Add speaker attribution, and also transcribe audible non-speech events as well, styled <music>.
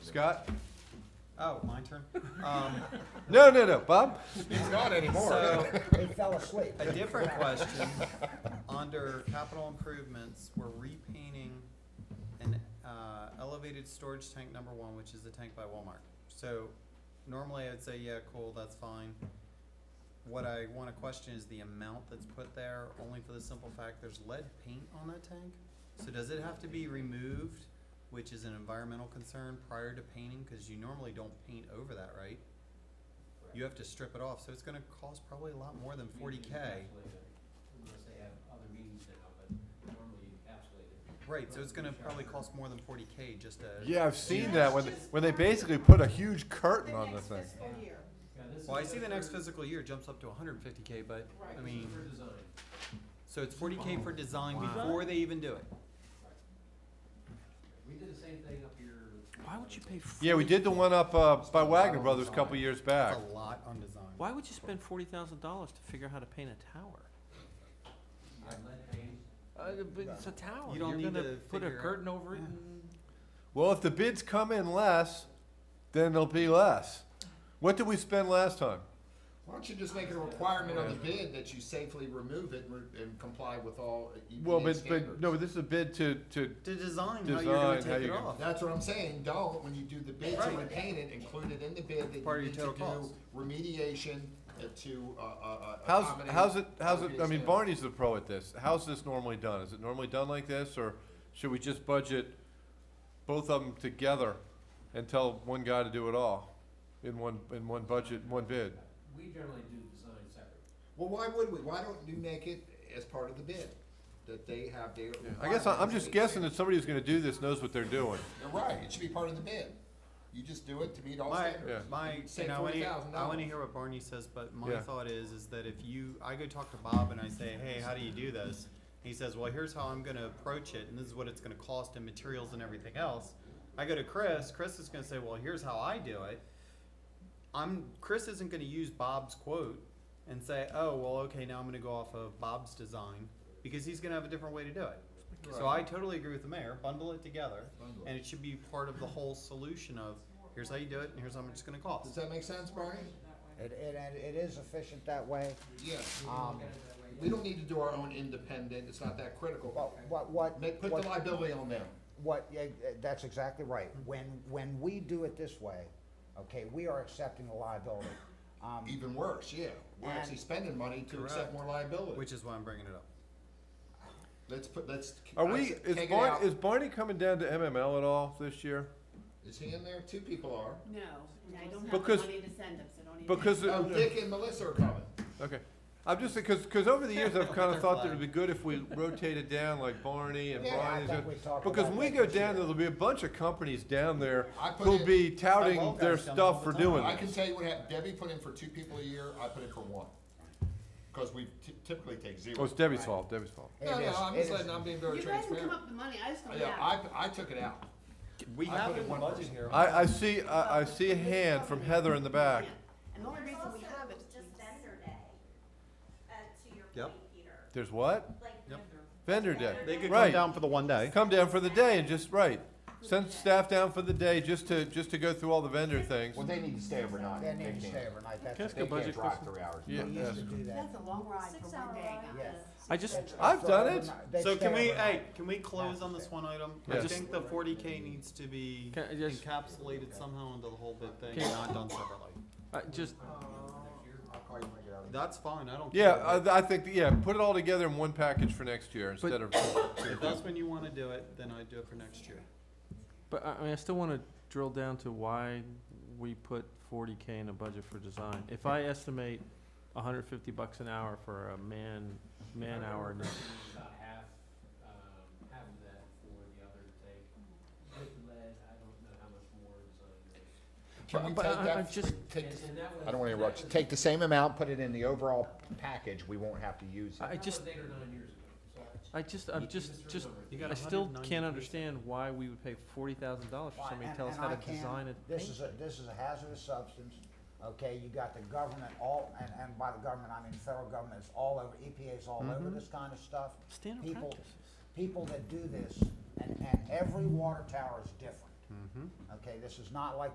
Speaker 1: Scott?
Speaker 2: Oh, my turn. Um,
Speaker 1: No, no, no, Bob?
Speaker 3: He's not anymore.
Speaker 2: so,
Speaker 4: They fell asleep.
Speaker 2: a different question. Under capital improvements, we're repainting an uh, elevated storage tank number one, which is the tank by Walmart. So normally I'd say, yeah, cool, that's fine. What I want to question is the amount that's put there, only for the simple fact there's lead paint on that tank. So does it have to be removed, which is an environmental concern, prior to painting? Because you normally don't paint over that, right? You have to strip it off, so it's gonna cost probably a lot more than forty K.
Speaker 5: Unless they have other meetings now, but normally you encapsulate it.
Speaker 2: Right, so it's gonna probably cost more than forty K just to.
Speaker 1: <laughs> Yeah, I've seen that when,
Speaker 6: Just
Speaker 1: when they
Speaker 6: one.
Speaker 1: basically put a huge curtain on the
Speaker 6: next
Speaker 1: thing.
Speaker 6: fiscal year.
Speaker 5: Yeah, this
Speaker 2: Well, I
Speaker 5: is
Speaker 2: see the next
Speaker 5: for-
Speaker 2: physical year jumps up to hundred and fifty K, but,
Speaker 6: Right.
Speaker 2: I
Speaker 5: this is
Speaker 2: mean,
Speaker 5: For design.
Speaker 2: so it's forty K for design
Speaker 1: Wow.
Speaker 2: before they even do it.
Speaker 5: We did the same thing up here.
Speaker 7: Why would you pay?
Speaker 1: Yeah, we
Speaker 7: 40
Speaker 1: did the one up, uh, by Wagner Brothers a couple years back.
Speaker 2: That's a lot on design.
Speaker 7: Why would you spend forty thousand dollars to figure out how to paint a tower?
Speaker 5: You had lead paint.
Speaker 7: Uh, but it's a tower.
Speaker 2: You don't
Speaker 7: You're
Speaker 2: need
Speaker 7: gonna
Speaker 2: to
Speaker 7: put a
Speaker 2: figure out-
Speaker 7: curtain over it.
Speaker 2: Yeah.
Speaker 7: And
Speaker 1: Well, if the bids come in less, then there'll be less. What did we spend last time?
Speaker 3: Why don't you just make it a requirement on the bid that you safely remove it and re- and comply with all
Speaker 1: Well, but,
Speaker 3: EPA
Speaker 1: but, no,
Speaker 3: standards?
Speaker 1: this is a bid to, to,
Speaker 2: To design how you're
Speaker 1: Design,
Speaker 2: gonna
Speaker 1: how
Speaker 2: take it
Speaker 1: you-
Speaker 2: off.
Speaker 3: That's what I'm saying, don't, when you do the bid to
Speaker 2: Right.
Speaker 3: repaint it, include it in the bid that
Speaker 2: Part
Speaker 3: you
Speaker 2: of
Speaker 3: need
Speaker 2: your
Speaker 3: to
Speaker 2: total
Speaker 3: do
Speaker 2: cost.
Speaker 3: remediation uh, to, uh, uh, uh,
Speaker 1: how's,
Speaker 3: accommodate
Speaker 1: how's it, how's it,
Speaker 3: EPA
Speaker 1: I mean,
Speaker 3: standards.
Speaker 1: Barney's the pro at this. How's this normally done? Is it normally done like this, or should we just budget both of them together and tell one guy to do it all in one, in one budget, one bid?
Speaker 5: We generally do design separate.
Speaker 3: Well, why would we? Why don't you make it as part of the bid, that they have their.
Speaker 1: I guess I- I'm just guessing that somebody who's gonna do this knows what they're doing.
Speaker 3: You're right, it should be part of the bid. You just do it to meet all
Speaker 2: My,
Speaker 3: standards.
Speaker 2: my,
Speaker 3: You save
Speaker 2: and I wanna,
Speaker 3: $40,000.
Speaker 2: I wanna hear what Barney says, but my
Speaker 1: Yeah.
Speaker 2: thought is, is that if you, I go talk to Bob and I say, hey, how do you do this? He says, well, here's how I'm gonna approach it, and this is what it's gonna cost in materials and everything else. I go to Chris, Chris is gonna say, well, here's how I do it. I'm, Chris isn't gonna use Bob's quote and say, oh, well, okay, now I'm gonna go off of Bob's design, because he's gonna have a different way to do it. So I totally agree with the mayor, bundle it together,
Speaker 3: Bundle it.
Speaker 2: and it should be part of the whole solution of, here's how you do it, and here's how much it's gonna
Speaker 3: Does
Speaker 2: cost.
Speaker 3: that make sense, Barney?
Speaker 4: It, it, and it is efficient that way.
Speaker 3: Yeah.
Speaker 4: Um,
Speaker 3: We don't need to do our own independent, it's not that critical.
Speaker 4: but what, what,
Speaker 3: Make, put the
Speaker 4: what,
Speaker 3: liability on them.
Speaker 4: what, yeah, uh, that's exactly right. When, when we do it this way, okay, we are accepting the liability. Um,
Speaker 3: Even worse, yeah. We're
Speaker 4: And-
Speaker 3: actually spending money to
Speaker 2: Correct.
Speaker 3: accept more liability.
Speaker 2: Which is why I'm bringing it up.
Speaker 3: Let's put, let's.
Speaker 1: Are
Speaker 3: I
Speaker 1: we,
Speaker 3: said,
Speaker 1: is
Speaker 3: take it out.
Speaker 1: Barney, is Barney coming down to MML at all this year?
Speaker 3: Is he in there? Two people are.
Speaker 6: No, and I don't have the
Speaker 1: Because-
Speaker 6: money to send them, so don't even.
Speaker 1: Because,
Speaker 3: Oh, Dick and Melissa are coming.
Speaker 1: okay, I'm just, because, because over the years, I've
Speaker 3: <laughs>
Speaker 1: kind of thought that it'd be good if we rotated down like Barney and
Speaker 3: Yeah, I
Speaker 1: Barney's.
Speaker 4: think
Speaker 1: and-
Speaker 4: we talked
Speaker 1: Because
Speaker 4: about
Speaker 1: when we
Speaker 4: that
Speaker 1: go
Speaker 4: this
Speaker 1: down,
Speaker 4: year.
Speaker 1: there'll be a bunch of companies down there
Speaker 3: I put
Speaker 1: who'll
Speaker 3: in-
Speaker 1: be touting
Speaker 2: Well,
Speaker 1: their
Speaker 2: guys come all
Speaker 1: stuff
Speaker 2: the
Speaker 1: for
Speaker 2: time.
Speaker 1: doing
Speaker 3: I
Speaker 1: it.
Speaker 3: can tell you what happened. Debbie put in for two people a year. I put in for one. Because we ty- typically take zero.
Speaker 1: Well, Oh, it's Debbie's fault, Debbie's fault.
Speaker 4: it
Speaker 3: No, no,
Speaker 4: is-
Speaker 3: I'm
Speaker 4: it
Speaker 3: just
Speaker 4: is-
Speaker 3: letting, I'm being very
Speaker 6: You guys can come
Speaker 3: transparent.
Speaker 6: up with the money, I just don't
Speaker 3: Yeah,
Speaker 6: have.
Speaker 3: I, I took it out.
Speaker 2: We
Speaker 3: I
Speaker 2: have
Speaker 3: put
Speaker 2: it
Speaker 3: in
Speaker 2: in the
Speaker 3: one
Speaker 2: budget
Speaker 3: person.
Speaker 2: here.
Speaker 1: I, I see, I, I see a hand from Heather in the back.
Speaker 6: And the only reason we have it is
Speaker 8: Just
Speaker 6: we-
Speaker 8: vendor day, uh, to your
Speaker 2: Yep.
Speaker 8: point, Peter,
Speaker 1: There's what?
Speaker 8: like.
Speaker 2: Yep.
Speaker 1: Vendor day.
Speaker 2: They could come
Speaker 1: Right.
Speaker 2: down for the one day.
Speaker 1: Come down for the day and just, right, send staff down for the day just to, just to go through all the vendor things.
Speaker 8: they need to stay overnight.
Speaker 4: They need to stay overnight, that's.
Speaker 7: That's good budget question.
Speaker 3: three hours.
Speaker 1: Yeah,
Speaker 4: We
Speaker 1: yeah.
Speaker 4: used to do that.
Speaker 6: That's a long ride for one day.
Speaker 4: Yes.
Speaker 7: I just,
Speaker 1: I've done it.
Speaker 4: They'd
Speaker 2: So
Speaker 4: stay
Speaker 2: can we,
Speaker 4: overnight.
Speaker 2: hey, can we close on this one item? I
Speaker 1: Yes.
Speaker 2: think the forty K needs to be
Speaker 7: Can I just-
Speaker 2: encapsulated somehow into the whole big thing,
Speaker 7: Can-
Speaker 2: and not done separately.
Speaker 7: I just,
Speaker 2: That's fine, I don't care.
Speaker 1: Yeah, I, I think, yeah, put it all together in one package for next year instead of,
Speaker 2: If that's when you wanna do it, then I'd do it for next year.
Speaker 7: but I, I mean, I still want to drill down to why we put forty k in a budget for design. If I estimate one hundred fifty bucks an hour for a man man hour,
Speaker 5: Remember, About half, um, half of that for the other take. With lead, I don't know how much more design is.
Speaker 3: Can we
Speaker 7: But-
Speaker 3: take
Speaker 7: but I- I
Speaker 3: that,
Speaker 7: just-
Speaker 3: take,
Speaker 5: And- and that was-
Speaker 3: I don't wanna
Speaker 5: that
Speaker 3: interrupt you.
Speaker 5: was-
Speaker 4: Take the same amount, put it in the overall package, we won't have to use it.
Speaker 7: I
Speaker 5: That
Speaker 7: just
Speaker 5: was eight or nine years ago, so.
Speaker 7: I just I'm just just I still can't understand why we would pay forty thousand dollars for
Speaker 4: Why,
Speaker 7: somebody to
Speaker 4: and-
Speaker 7: tell us
Speaker 4: and
Speaker 7: how to
Speaker 4: I can't-
Speaker 7: design a
Speaker 4: This
Speaker 7: paint.
Speaker 4: is a, this is a hazardous substance, okay, you got the government all, and, and by the government, I mean federal government, it's all over, E EPA's all over this kind of stuff.
Speaker 7: Mm-hmm. Standard
Speaker 4: People-
Speaker 7: practices.
Speaker 4: People that do this, and, and every water tower is different.
Speaker 9: Mm-hmm.
Speaker 3: Okay, this is not like